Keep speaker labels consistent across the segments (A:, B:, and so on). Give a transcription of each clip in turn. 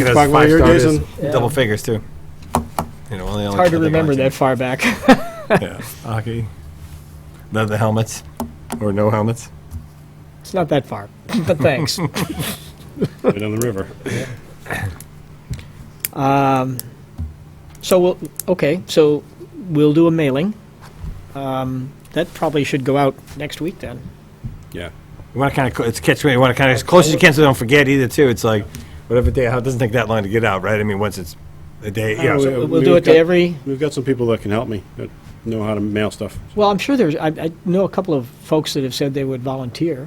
A: Because
B: Talk about
A: five
B: your
A: star
B: days
A: is
C: and-
A: Double
C: Yeah.
A: figures too. You know, only
C: It's hard to remember that far back.
A: Yeah, hockey. The, the helmets, or no helmets.
C: it's not that far, but thanks.
B: Right on the river.
C: Um, so we'll okay. So we'll do a mailing. Um, that probably should go out next week then.
B: Yeah.
A: You want to kind of it's catch me. You want to kind of as close as you can, so they don't forget either. Too. It's like whatever day. It doesn't take that long to get out, right? I mean, once it's a day.
B: Oh,
A: yeah.
B: yeah.
A: so-
C: We'll,
B: we've
C: do it
B: got-
C: to every.
B: We've got some people that can help me, that know how to mail stuff.
C: Well, I'm sure there's. I, I know a couple of folks that have said they would volunteer.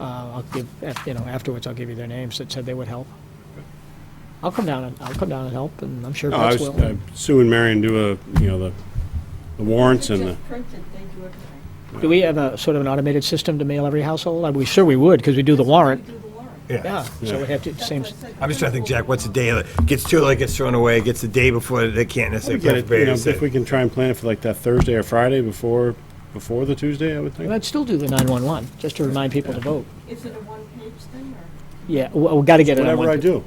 C: Uh, I'll give af- you know afterwards. I'll give you their names that said they would help. I'll come down and I'll come down and help, and I'm sure
B: No, I
C: folks
B: was,
C: will.
B: uh, Sue and Marion do a, you know, the the warrants and the,
D: Just printed, they do everything.
C: Do we have a sort of an automated system to mail every household? Are we sure we would because we do the warrant.
D: We do the warrant.
A: yeah.
C: Yeah, so we have to
D: That's
C: same.
D: what I said.
A: I'm just trying to think, Jack. What's the day? Like, gets too late, gets thrown away. Gets the day before they can't
B: we
A: necessarily.
B: get it, you know,
A: play
B: if we can try and plan it for like that Thursday or Friday before, before the Tuesday, I would think.
C: I'd still do the 911 just to remind people to vote.
D: Is it a one-page thing or?
C: Yeah, w we got to get it on
B: Whatever I
C: one. page.
B: do.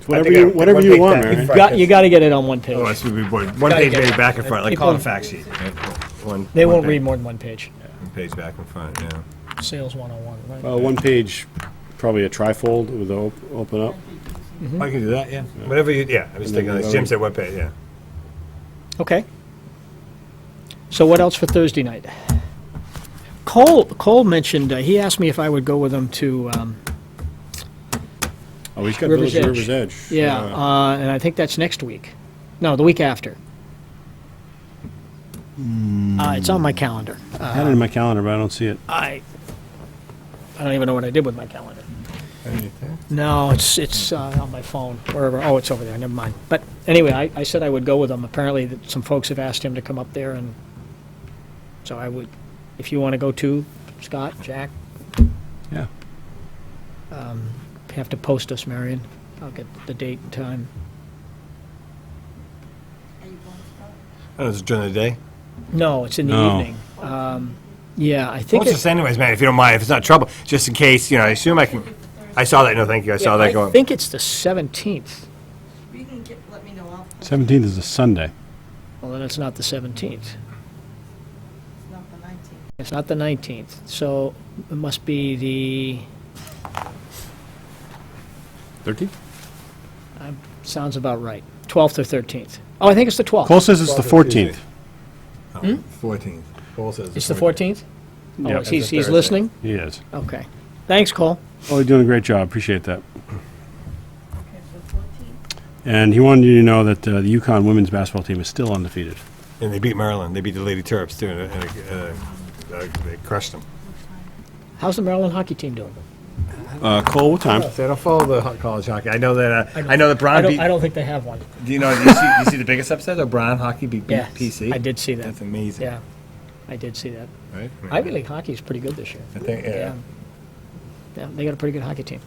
B: It's Whatever you, whatever you want, Marion.
C: You got, you got to get it on one page.
A: Otherwise, we'd be bored. One
C: Gotta
A: page
C: get
A: maybe
C: it.
A: back and front, like
C: People-
A: call it a fact sheet. One-
C: They
A: one
C: won't
A: page-
C: read more than one page.
A: one Page back and front, yeah.
C: Sales 101, right?
B: Uh, one page, probably a trifold with the op- open up.
A: I can do that, yeah. Whatever you, yeah, I was
B: And then
A: thinking, like
B: the
A: Jim
B: other-
A: said, what page, yeah.
C: Okay. So what else for Thursday night? Cole, Cole mentioned, uh, he asked me if I would go with him to, um,
B: Oh, he's got
C: River's
B: Village of
C: Edge.
B: River's Edge.
C: yeah, uh, and I think that's next week. No, the week after.
A: Hmm.
C: Uh, It's on my calendar.
B: I had it in my calendar, but I don't see it.
C: I, I don't even know what I did with my calendar. No, it's, it's uh, on my phone, wherever, oh, it's over there, never mind. But anyway, I, I said I would go with him, apparently that some folks have asked him to come up there and, so I would, if you want to go too, Scott, Jack, Um,
B: Yeah.
C: have to post us, Marion, I'll get the date and time.
D: Are you going to start?
A: Oh, it's during the day?
C: No, it's in the
B: No.
C: evening. Um, Yeah, I
A: Well,
C: think,
A: it's
C: it-
A: just anyways, man, if you don't mind, if it's not trouble, just in case, you know, I assume I can, I saw that, no, thank you, I saw that
C: I
A: going.
C: think it's the 17th,
D: You can get, let me know, I'll, it's
B: 17th is a Sunday.
C: well, then it's not the 17th.
D: not the nineteenth.
C: It's not the 19th, so it must be the,
B: 13th?
C: uh, sounds about right, 12th or 13th. Oh, I think it's the 12th.
B: Cole says it's the 14th.
A: Fourteenth. Oh, Paul says.
C: Hmm? It's the 14th? Oh,
B: Yeah.
C: is he's,
A: It's a
C: he's
A: Thursday.
C: listening?
B: He is.
C: Okay. Thanks, Cole.
B: Oh, you're doing a great job. Appreciate that.
D: Okay, so fourteenth.
B: And he wanted you to know that uh, the Yukon women's basketball team is still undefeated.
A: And they beat Maryland, they beat the Lady Terps too, and, uh, uh, uh, they crushed them.
C: How's the Maryland hockey team doing?
B: Uh, Cole, what time?
A: See, I don't follow the ho- college hockey, I know that, uh, I know that
C: I
A: Brown
C: don't,
A: beat,
C: I don't think they have one.
A: do you know, do you see, you see the biggest upset, of Brown hockey beat
C: Yes,
A: PC?
C: I did see that.
A: That's amazing.
C: Yeah, I did see that.
A: Right?
C: Ivy League hockey's pretty good this year.
A: I think, yeah.
C: Yeah, they got a pretty good hockey team.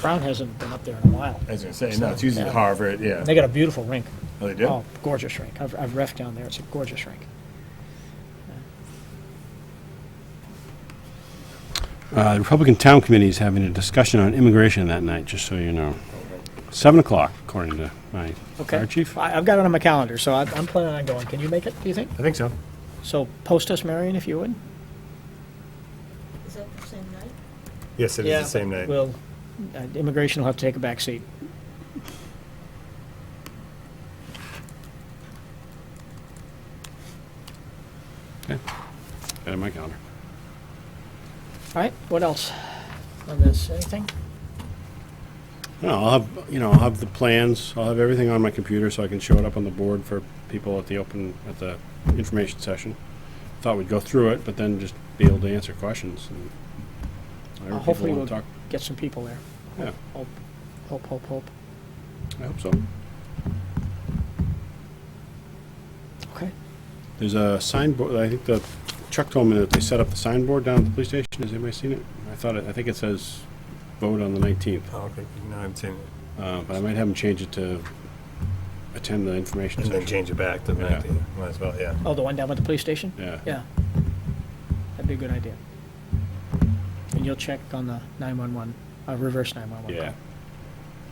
C: Brown hasn't been up there in a while.
A: I was gonna say, no, it's usually Harvard, yeah.
C: They got a beautiful rink.
A: Oh, they do?
C: Oh, gorgeous rink. I've, I've refed down there. It's a gorgeous rink.
B: Uh, the Republican Town Committee is having a discussion on immigration that night, just so you know. 7 o'clock, according to my
C: Okay.
B: fire chief.
C: I, I've got it on my calendar, so I, I'm planning on going. Can you make it, do you think?
A: I think so.
C: So post us, Marion, if you would.
D: Is that the same night?
A: Yes, it is the same night.
C: Well, uh, immigration will have to take a back seat.
B: Got it in my calendar.
C: All right, what else on this? Anything?
B: No, I'll have, you know, I'll have the plans, I'll have everything on my computer so I can show it up on the board for people at the open, at the information session. Thought we'd go through it, but then just be able to answer questions and. whatever people
C: Hopefully
B: wanna
C: we'll
B: talk-
C: get some people there.
B: Yeah,
C: Hope, hope, hope, hope.
B: I hope so.
C: Okay.
B: There's a signboard, I think the, Chuck told me that they set up the signboard down at the police station, has anybody seen it? I thought, it I think it says vote on the nineteenth,
A: Oh, okay. No, I haven't seen it.
B: uh, but I might have them change it to attend the information
A: And then
B: session.
A: change it back to the
B: Yeah.
A: 19th. Might as well, yeah.
C: Oh, the one down at the police station?
B: Yeah.
C: Yeah. That'd be a good idea. And you'll check on the 911, uh, reverse 911.
B: Yeah,
C: call.